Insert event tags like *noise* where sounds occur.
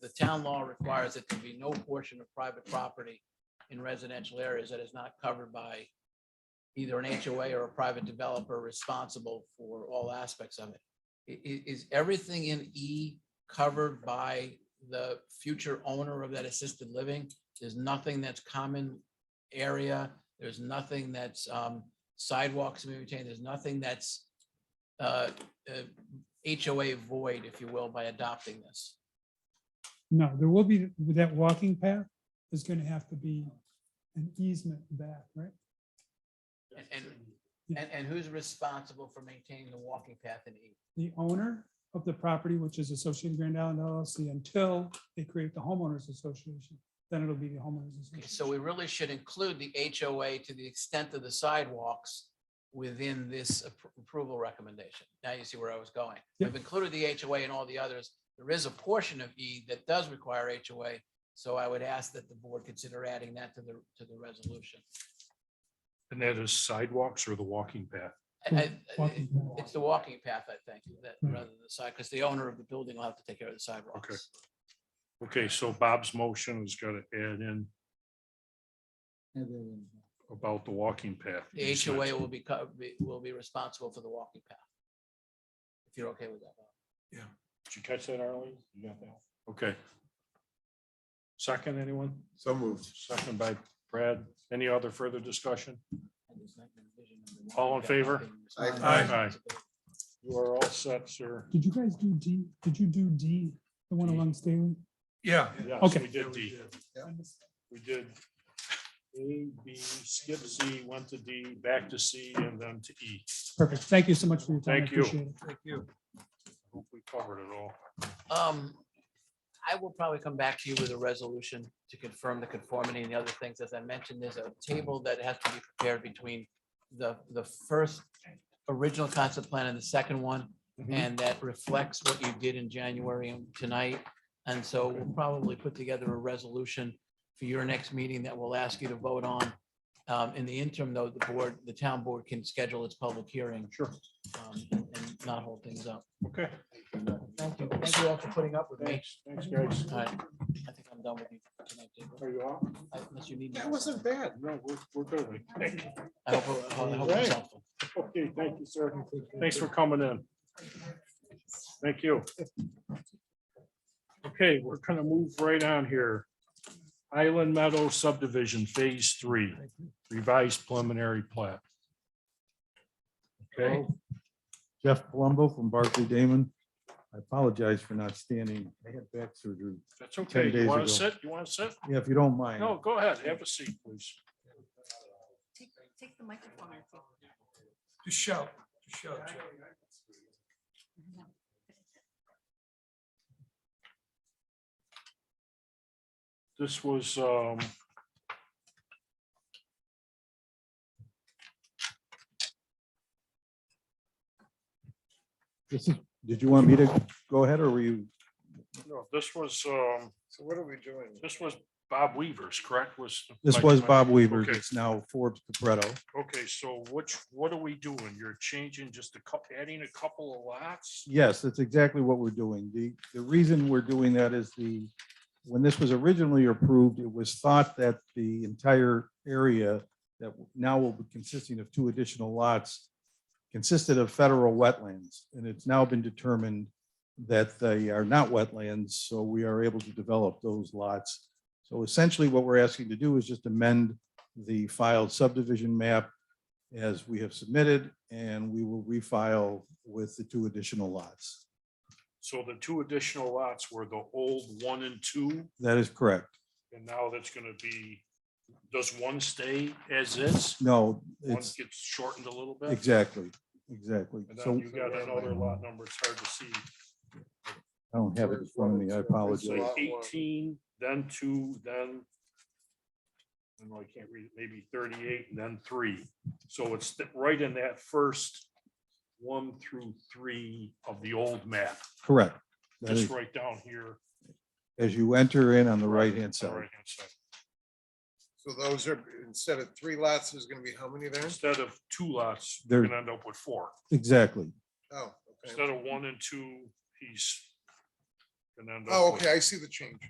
the town law requires that there be no portion of private property in residential areas that is not covered by either an HOA or a private developer responsible for all aspects of it. I- i- is everything in E covered by the future owner of that assisted living? There's nothing that's common area. There's nothing that's um sidewalks to be maintained. There's nothing that's uh uh, HOA void, if you will, by adopting this. No, there will be, that walking path is gonna have to be an easement back, right? And- And and who's responsible for maintaining the walking path in E? The owner of the property, which is Associated Grand Island LLC, until they create the homeowners association, then it'll be the homeowners Okay, association. So we really should include the HOA to the extent of the sidewalks within this appro- approval recommendation. Now you see where I was going. We've included the HOA and all the others. There is a portion of E that does require HOA. So I would ask that the board consider adding that to the, to the resolution. And that is sidewalks or the walking path? I- I- Walking path. It's the walking path, I think, that Hmm. rather than the side, because the owner of the building will have to take care of the sidewalks. Okay, so Bob's motion is gonna add in about the walking path. The HOA will be, co- be- will be responsible for the walking path. If you're okay with that. Bob. Did you catch that, Arlene? You got that? Okay. Second, anyone? So moved. Second by Brad. Any other further discussion? And there's not gonna be vision of the walking All in path favor? being Aye. responsible. You are all set, sir. Did you guys do D, did you do D, the one D. along Staley? Yeah, Yes, Okay. We did D. Yeah. We did A, B, skip C, went to D, back to C, and then to E. Perfect, thank you so much for your time. I Thank you. appreciate it. thank you. Hope we covered it all. Um, I will probably come back to you with a resolution to confirm the conformity and the other things. As I mentioned, there's a table that has to be prepared between the, the first original concept plan and the second one. Mhm. And that reflects what you did in January and tonight. And so we'll probably put together a resolution for your next meeting that we'll ask you to vote on. Um, in the interim, though, the board, the town board can schedule its public hearing. Sure. um, And and not hold things up. Okay. Thank you. Thank you all for putting up with me. Thanks, thanks, guys. All right, I think I'm done with you. tonight, David. Are you off? Unless you need. me. That wasn't bad. No, we're, we're good. *laughs* Thank you. I hope, I hope it's helpful. Okay, thank you, sir. Thanks for coming in. Thank you. Okay, we're gonna move right on here. Island Meadow subdivision, phase three, revised preliminary plat. Okay, Jeff Palumbo from Barclay Damon. I apologize for not standing. I had back surgery. that's okay. You days wanna ago. sit? You wanna sit? Yeah, if you don't mind. No, go ahead. Have a seat, please. Take, take the microphone. I think. Just shout, just shout. Joe. This was, um, This is, did you want me to go ahead or were you? no, this was, um, So what are we doing? this was Bob Weaver's, correct? Was. This was Bob Weaver. Okay. It's now Forbes Capretto. Okay, so which, what are we doing? You're changing just a couple, adding a couple of lots? Yes, that's exactly what we're doing. The, the reason we're doing that is the, when this was originally approved, it was thought that the entire area that now will be consisting of two additional lots consisted of federal wetlands. And it's now been determined that they are not wetlands, so we are able to develop those lots. So essentially, what we're asking to do is just amend the filed subdivision map as we have submitted, and we will refile with the two additional lots. So the two additional lots were the old one and two, That is correct. and now that's gonna be, does one stay as is? No, One it's gets shortened a little bit? exactly, exactly. And So then you got another lot number, it's hard to see, I don't have it in front of me. I it's apologize. like Lot one. eighteen, then two, then I know I can't read, it. maybe thirty-eight and then three. So it's th- right in that first one through three of the old map. Correct. That Just is- right down here. As you enter in on the right-hand on the side, right-hand side. So those are, instead of three lots, there's gonna be how many there? Instead of two lots, There- you're gonna end up with four. exactly. Oh, okay. Instead of one and two, he's gonna end up Oh, with. okay, I see the change.